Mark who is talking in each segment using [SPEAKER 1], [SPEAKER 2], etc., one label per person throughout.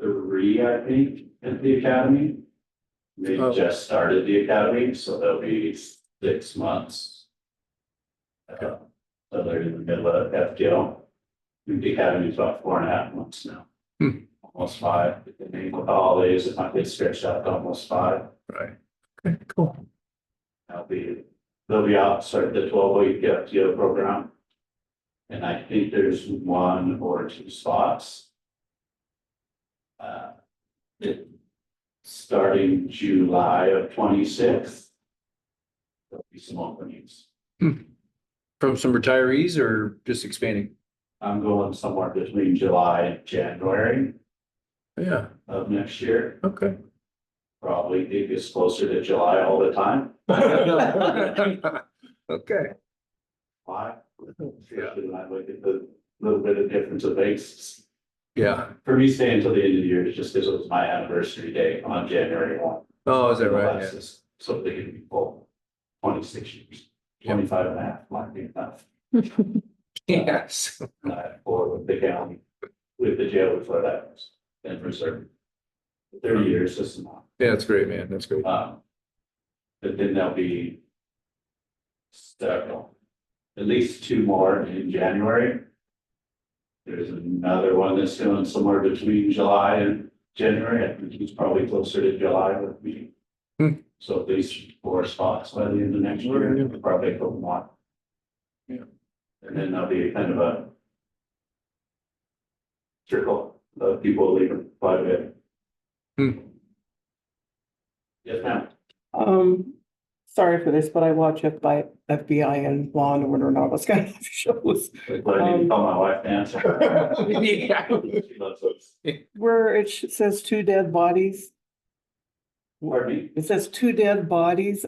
[SPEAKER 1] three, I think, at the academy. They
[SPEAKER 2] Oh.
[SPEAKER 1] just started the academy, so they'll be six months. Uh, So they're in the middle of FDL. I think The academy's about four and a half months now.
[SPEAKER 2] Hmm.
[SPEAKER 1] Almost five, and then with the holidays, it might get stretched out to almost five.
[SPEAKER 2] Right. Okay, cool.
[SPEAKER 1] I'll be, they'll be out, start the twelve oh week FTO program. And I think there's one or two spots. Uh, it, starting July of twenty sixth. There'll be some openings.
[SPEAKER 2] From some retirees or just expanding?
[SPEAKER 1] I'm going somewhere between July and January
[SPEAKER 2] Yeah,
[SPEAKER 1] of next year.
[SPEAKER 2] okay.
[SPEAKER 1] Probably it gets closer to July all the time.
[SPEAKER 2] Okay.
[SPEAKER 1] Why? Especially when I look at the little bit of difference of dates.
[SPEAKER 2] Yeah.
[SPEAKER 1] For me, stay until the end of the year is just because it was my anniversary day on January one.
[SPEAKER 2] Oh, is that right? Yeah.
[SPEAKER 1] That's just So they can be full twenty-six years,
[SPEAKER 2] Yeah.
[SPEAKER 1] twenty-five and a half might be enough.
[SPEAKER 2] Yes.
[SPEAKER 1] And I Or with the county, with the jail before that, was, and for certain. Thirty years is enough.
[SPEAKER 2] Yeah, that's great, man. That's great.
[SPEAKER 1] Um, But then there'll be several, at least two more in January. There's another one that's going somewhere between July and January, I think it's probably closer to July would be.
[SPEAKER 2] Hmm.
[SPEAKER 1] So at least four spots by the end of next
[SPEAKER 2] Yeah.
[SPEAKER 1] year, probably a couple more.
[SPEAKER 2] Yeah.
[SPEAKER 1] And then there'll be kind of a trickle of people leaving quite a bit.
[SPEAKER 2] Hmm.
[SPEAKER 1] Yes, ma'am.
[SPEAKER 3] Um, sorry for this, but I watch FBI, FBI and Law and Order and all those kind of shows.
[SPEAKER 1] But I need to call my wife to answer.
[SPEAKER 2] Yeah.
[SPEAKER 1] She loves those.
[SPEAKER 3] Where it sh- says two dead bodies,
[SPEAKER 1] Pardon me?
[SPEAKER 3] it says two dead bodies,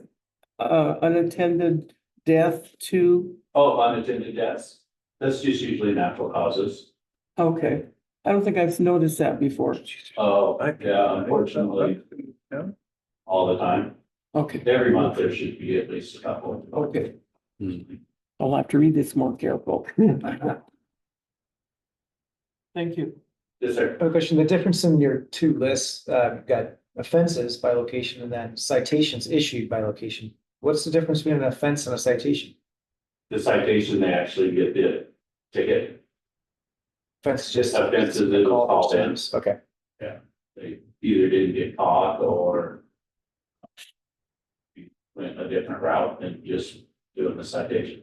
[SPEAKER 3] uh, unattended death to,
[SPEAKER 1] Oh, unattended deaths. That's just usually natural causes.
[SPEAKER 3] okay. I don't think I've noticed that before.
[SPEAKER 1] Oh, yeah, unfortunately,
[SPEAKER 2] Yeah.
[SPEAKER 1] all the time.
[SPEAKER 3] Okay,
[SPEAKER 1] Every month there should be at least a couple.
[SPEAKER 3] okay.
[SPEAKER 1] Mhm.
[SPEAKER 3] I'll have to read this more careful. Thank you.
[SPEAKER 1] Yes, sir.
[SPEAKER 4] A question, the difference in your two lists, uh, you've got offenses by location and then citations issued by location. What's the difference between an offense and a citation?
[SPEAKER 1] The citation, they actually get the ticket.
[SPEAKER 4] Offense is just.
[SPEAKER 1] Offense is a call
[SPEAKER 4] Call
[SPEAKER 1] in.
[SPEAKER 4] Okay,
[SPEAKER 1] They either didn't get caught or went a different route than just doing the citation.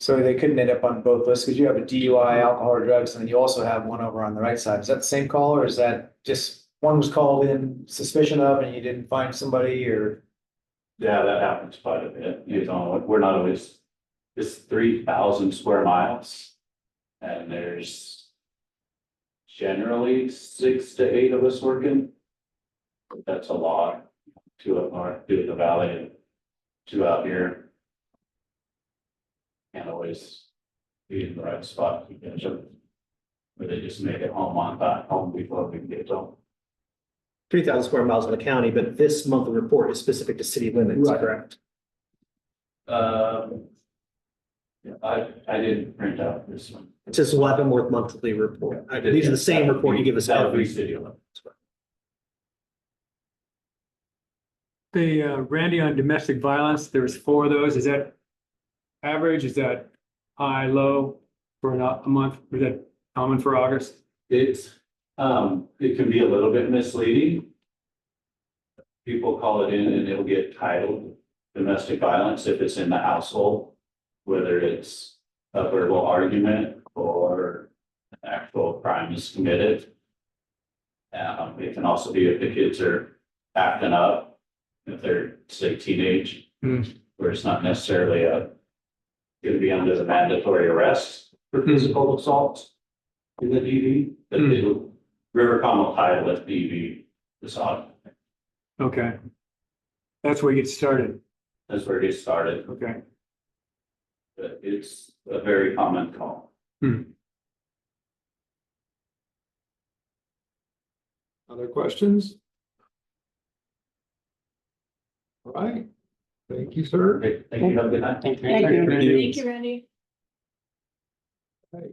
[SPEAKER 4] so they couldn't end up on both lists because you have a DUI, alcohol or drugs, and then you also have one over on the right side. Is that the same call or is that just one was called in suspicion of and you didn't find somebody or?
[SPEAKER 1] Yeah, that happens quite a bit. You know, we're not always, it's three thousand square miles. And there's generally six to eight of us working. That's a lot, two up north, two in the valley, and two out here. Can't always be in the right spot to catch them. But they just make it home on time, home before we can get home.
[SPEAKER 5] three thousand square miles in the county, but this monthly report is specific to city limits,
[SPEAKER 4] Right.
[SPEAKER 5] correct?
[SPEAKER 1] Um. yeah, I, I didn't print out this one.
[SPEAKER 5] It's just Leavenworth monthly report.
[SPEAKER 1] I did,
[SPEAKER 5] These are
[SPEAKER 1] yeah.
[SPEAKER 5] the same report you give us
[SPEAKER 1] That would be
[SPEAKER 5] every
[SPEAKER 1] city
[SPEAKER 5] city
[SPEAKER 1] limit.
[SPEAKER 5] limit.
[SPEAKER 6] The uh, Randy on domestic violence, there was four of those. Is that average? Is that high, low for an- a month? Is that common for August?
[SPEAKER 1] It's, um, it can be a little bit misleading. People call it in and it'll get titled domestic violence if it's in the household, whether it's a verbal argument or an actual crime is committed. Um, it can also be if the kids are acting up, if they're, say, teenage,
[SPEAKER 2] Hmm.
[SPEAKER 1] where it's not necessarily a, gonna be under the mandatory arrest for physical assault in the DV, but
[SPEAKER 2] Hmm.
[SPEAKER 1] it'll, River Palm will title it DV this autumn.
[SPEAKER 6] Okay. That's where you get started.
[SPEAKER 1] That's where it gets started,
[SPEAKER 6] Okay.
[SPEAKER 1] but it's a very common call.
[SPEAKER 6] Other questions? All right. Thank you, sir.
[SPEAKER 1] Okay, thank you, have a good night.
[SPEAKER 3] Thank you.
[SPEAKER 7] Thank you, Randy.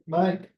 [SPEAKER 6] Mike.